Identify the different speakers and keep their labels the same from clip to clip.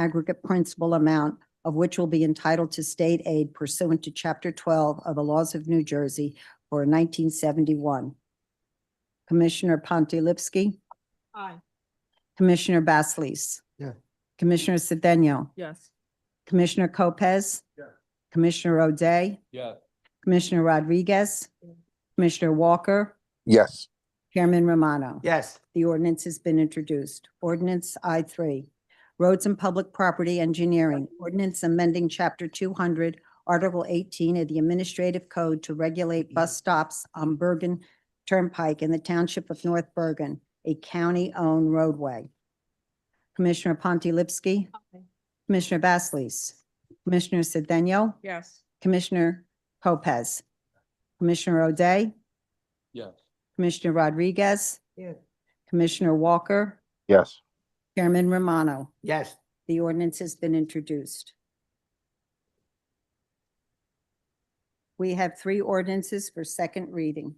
Speaker 1: aggregate principal amount of which will be entitled to state aid pursuant to Chapter 12 of the laws of New Jersey for 1971. Commissioner Pontilivski,
Speaker 2: Aye.
Speaker 1: Commissioner Basleys.
Speaker 3: Yeah.
Speaker 1: Commissioner Cedeno,
Speaker 2: Yes.
Speaker 1: Commissioner Lopez.
Speaker 3: Yeah.
Speaker 1: Commissioner O'Day,
Speaker 4: Yes.
Speaker 1: Commissioner Rodriguez, Commissioner Walker,
Speaker 5: yes,
Speaker 1: Chairman Romano.
Speaker 3: yes,
Speaker 1: The ordinance has been introduced. Ordinance I three, roads and public property engineering. Ordinance amending chapter two hundred, article eighteen of the administrative code to regulate bus stops on Bergen Turnpike in the township of North Bergen, a county-owned roadway. Commissioner Pontilivski, Commissioner Basleys, Commissioner Cedeno,
Speaker 2: Yes.
Speaker 1: Commissioner Lopez, Commissioner O'Day,
Speaker 4: Yes.
Speaker 1: Commissioner Rodriguez,
Speaker 3: Yeah.
Speaker 1: Commissioner Walker,
Speaker 5: yes,
Speaker 1: Chairman Romano,
Speaker 3: yes,
Speaker 1: the ordinance has been introduced. We have three ordinances for second reading.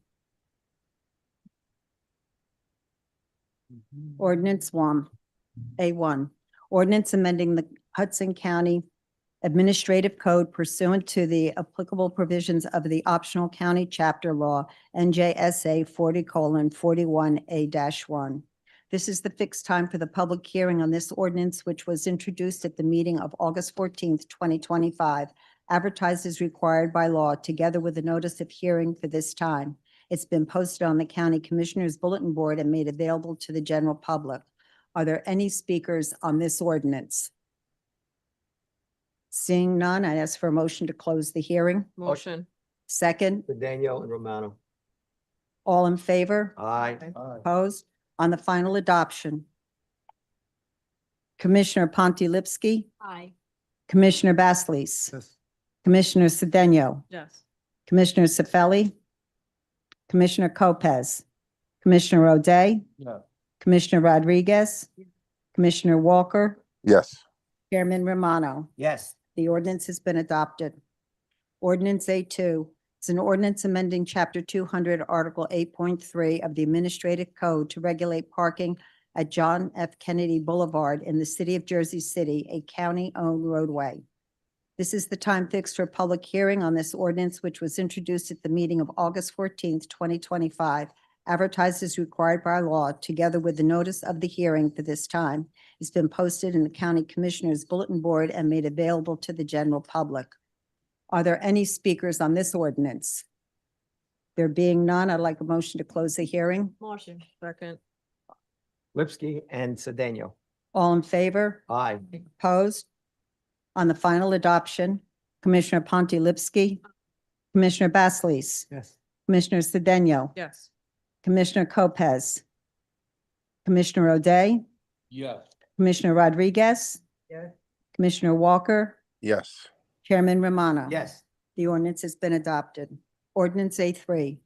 Speaker 1: Ordinance one, A one, ordinance amending the Hudson County Administrative Code pursuant to the applicable provisions of the optional county chapter law, NJSA forty colon forty-one A one. This is the fixed time for the public hearing on this ordinance, which was introduced at the meeting of August fourteenth, twenty twenty-five, advertised as required by law, together with a notice of hearing for this time. It's been posted on the County Commissioners Bulletin Board and made available to the general public. Are there any speakers on this ordinance? Seeing none, I ask for a motion to close the hearing.
Speaker 2: Motion.
Speaker 1: Second,
Speaker 3: for Danielle and Romano.
Speaker 1: all in favor?
Speaker 3: Aye,
Speaker 1: Opposed? On the final adoption. Commissioner Pontilivski,
Speaker 2: Aye.
Speaker 1: Commissioner Basleys, Commissioner Cedeno,
Speaker 2: Yes.
Speaker 1: Commissioner Cefali, Commissioner Lopez, Commissioner O'Day,
Speaker 4: Yes.
Speaker 1: Commissioner Rodriguez, Commissioner Walker,
Speaker 5: yes.
Speaker 1: Chairman Romano.
Speaker 3: yes,
Speaker 1: The ordinance has been adopted. Ordinance A2 is an ordinance amending Chapter 200, Article 8.3 of the Administrative Code to regulate parking at John F. Kennedy Boulevard in the city of Jersey City, a county-owned roadway. This is the time fixed for public hearing on this ordinance, which was introduced at the meeting of August 14th, 2025, advertised as required by law, together with the notice of the hearing for this time has been posted in the County Commissioners Bulletin Board and made available to the general public. Are there any speakers on this ordinance? There being none, I'd like a motion to close the hearing.
Speaker 2: Motion. Second.
Speaker 3: Lipsky and Sedano.
Speaker 1: All in favor?
Speaker 3: Aye,
Speaker 1: Opposed? On the final adoption, Commissioner Pontilivski, Commissioner Basleys,
Speaker 3: yes,
Speaker 1: Commissioner Cedeno,
Speaker 2: Yes.
Speaker 1: Commissioner Lopez, Commissioner O'Day,
Speaker 4: Yes.
Speaker 1: Commissioner Rodriguez,
Speaker 3: Yeah.
Speaker 1: Commissioner Walker,
Speaker 5: Yes,
Speaker 1: Chairman Romano.
Speaker 3: yes,
Speaker 1: The ordinance has been adopted. Ordinance A three,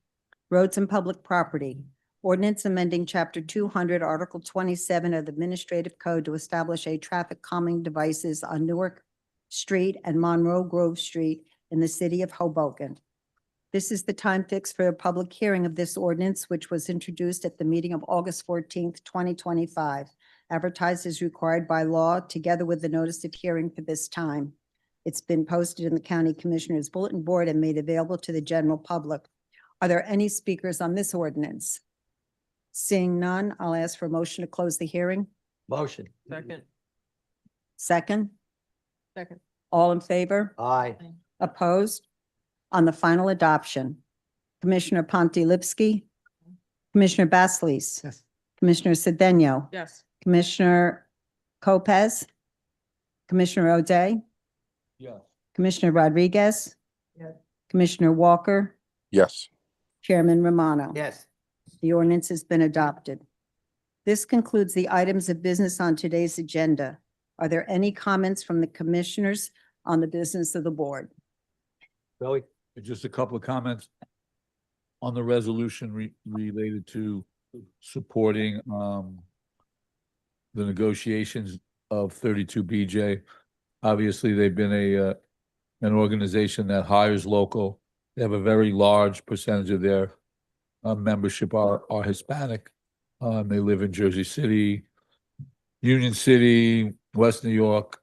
Speaker 1: roads and public property. Ordinance amending chapter two hundred, article twenty-seven of the administrative code to establish a traffic calming devices on Newark Street and Monroe Grove Street in the city of Hoboken. This is the time fixed for a public hearing of this ordinance, which was introduced at the meeting of August fourteenth, twenty twenty-five. Advertised as required by law, together with the notice of hearing for this time. It's been posted in the County Commissioners Bulletin Board and made available to the general public. Are there any speakers on this ordinance? Seeing none, I'll ask for a motion to close the hearing.
Speaker 3: motion.
Speaker 2: Second.
Speaker 1: Second,
Speaker 2: Second.
Speaker 1: all in favor?
Speaker 3: Aye,
Speaker 1: Opposed? On the final adoption, Commissioner Pontilivski, Commissioner Basleys,
Speaker 3: yes,
Speaker 1: Commissioner Cedeno,
Speaker 2: Yes.
Speaker 1: Commissioner Lopez, Commissioner O'Day,
Speaker 4: Yes.
Speaker 1: Commissioner Rodriguez,
Speaker 3: Yeah.
Speaker 1: Commissioner Walker,
Speaker 5: yes,
Speaker 1: Chairman Romano.
Speaker 3: yes,
Speaker 1: The ordinance has been adopted. This concludes the items of business on today's agenda. Are there any comments from the commissioners on the business of the board?
Speaker 3: Billy,
Speaker 4: Just a couple of comments on the resolution re- related to supporting, um, the negotiations of thirty-two BJ. Obviously, they've been a, uh, an organization that hires local. They have a very large percentage of their, uh, membership are, are Hispanic. Um, they live in Jersey City, Union City, West New York,